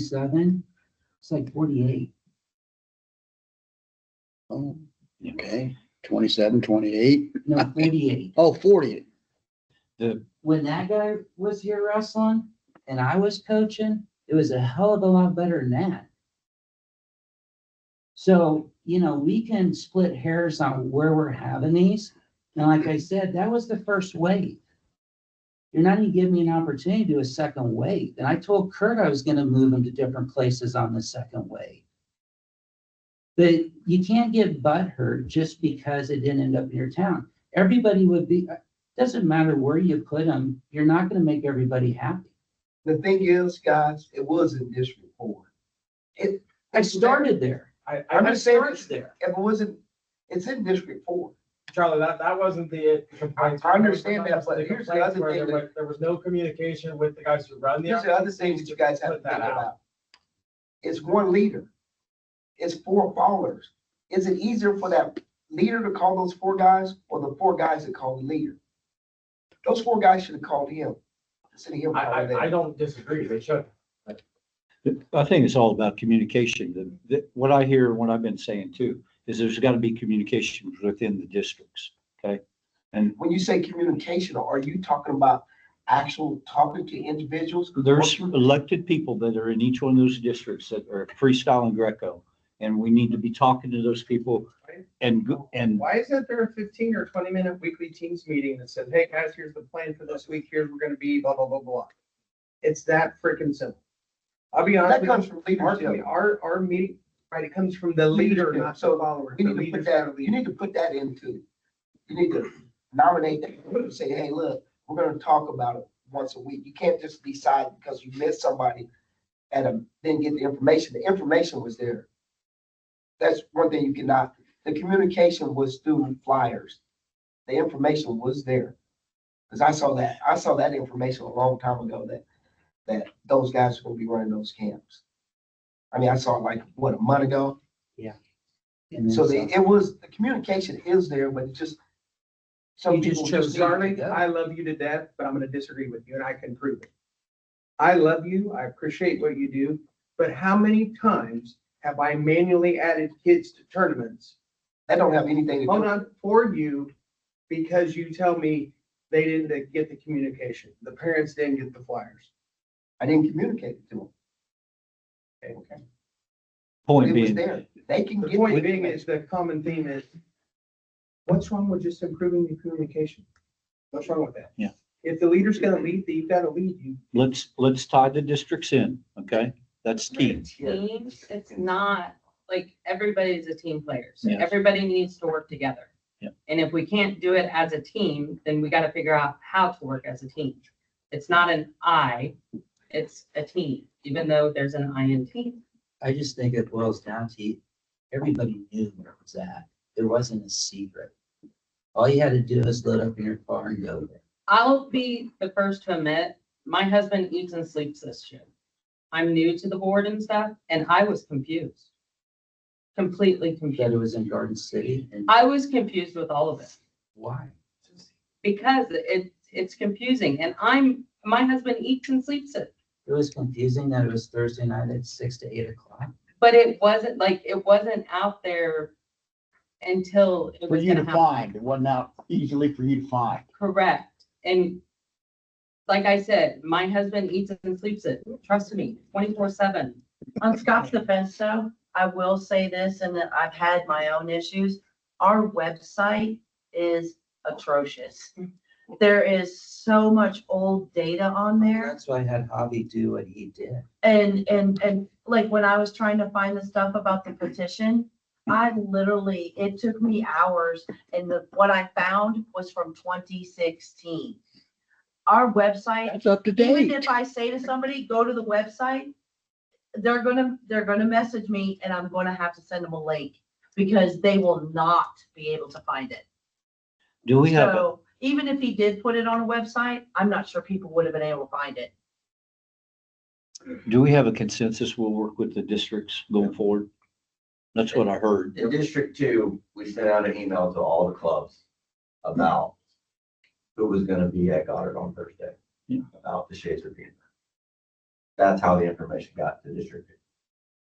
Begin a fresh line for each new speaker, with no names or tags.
twenty-seven, it's like forty-eight.
Oh, okay, twenty-seven, twenty-eight,
No, forty-eight.
oh, forty,
When that guy was here wrestling and I was coaching, it was a hell of a lot better than that. So, you know, we can split hairs on where we're having these. And like I said, that was the first wave. You're not even giving me an opportunity to do a second wave. And I told Kurt I was gonna move him to different places on the second wave. But you can't get butthurt just because it didn't end up in your town. Everybody would be, doesn't matter where you put them, you're not gonna make everybody happy.
The thing is, guys, it was in District Four. It,
I started there.
I, I,
I'm
I
just saying-
started there.
if it wasn't, it's in District Four.
Charlie, that, that wasn't the complaint.
I understand that, but
The
here's the
complaints
other
where
thing
there
that-
was- There was no communication with the guys who run the.
Here's the other thing that you guys have to
Put that
think
out.
about. It's one leader. It's four followers. Is it easier for that leader to call those four guys or the four guys that call the leader? Those four guys should have called him. Instead of him
I,
calling
I, I
them.
don't disagree, they should.
I think it's all about communication. The- the- what I hear, and what I've been saying too, is there's gotta be communication within the districts, okay? And
When you say communication, are you talking about actual talking to individuals?
there's elected people that are in each one of those districts that are freestyle and Greco. And we need to be talking to those people and, go- and
Why isn't there a fifteen or twenty minute weekly teams meeting that says, hey guys, here's the plan for this week, here's we're gonna be blah, blah, blah, blah. It's that freaking simple. I'll be honest
That
with
comes from
you, our,
leadership.
our, our meeting, right, it comes from the leader,
Leadership.
not the follower.
We
The
need to put
leaders
that,
are
you
leading.
need to put that into, you need to nominate that, group, say, hey, look, we're gonna talk about it once a week. You can't just decide because you missed somebody and um, then get the information. The information was there. That's one thing you cannot, the communication was through flyers. The information was there. Cause I saw that, I saw that information a long time ago that, that those guys were gonna be running those camps. I mean, I saw it like, what, a month ago?
And then
So
some.
the, it was, the communication is there, but it just. Some
You just
people
chose
just,
not to
Charlie,
go.
I love you to death, but I'm gonna disagree with you and I can prove it. I love you, I appreciate what you do, but how many times have I manually added kids to tournaments
that don't have anything to
Hold
do.
on, for you, because you tell me they didn't get the communication, the parents didn't get the flyers.
I didn't communicate it to them.
point
It was
being,
there. They can
The
get.
point being is, the common theme is, what's wrong with just improving the communication? What's wrong with that?
Yeah.
If the leader's gonna lead, you've gotta lead you.
let's, let's tie the districts in, okay? That's key.
teams, it's not, like, everybody's a team player, so
Yes.
everybody needs to work together.
Yeah.
And if we can't do it as a team, then we gotta figure out how to work as a team. It's not an I, it's a team, even though there's an I in team.
I just think it boils down to, everybody knew where it was at. There wasn't a secret. All you had to do is load up in your car and go there.
I'll be the first to admit, my husband eats and sleeps this shit. I'm new to the board and stuff, and I was confused. Completely
That it
confused.
was in Garden City and
I was confused with all of it.
why?
because it, it's confusing and I'm, my husband eats and sleeps it.
It was confusing that it was Thursday night at six to eight o'clock.
But it wasn't like, it wasn't out there until it
for
was
you
gonna
to
happen.
find, it wasn't out easily for you to find.
Correct. And like I said, my husband eats and sleeps it. Trust me, twenty-four seven.
On Scott's defense though, I will say this and that I've had my own issues. Our website is atrocious. There is so much old data on there
That's why I had Javi do what he did.
and, and, and like when I was trying to find the stuff about the petition, I literally, it took me hours and the, what I found was from twenty sixteen. Our website
That's up to
even
date.
if I say to somebody, go to the website, they're gonna, they're gonna message me and I'm gonna have to send them a link because they will not be able to find it.
Do we have, a-
So even if he did put it on a website, I'm not sure people would have been able to find it.
do we have a consensus? We'll work with the districts going forward. That's what I heard.
In District Two, we sent out an email to all the clubs about who was gonna be at Goddard on Thursday.
Yeah.
About the shades of being.
That's how the information got to district.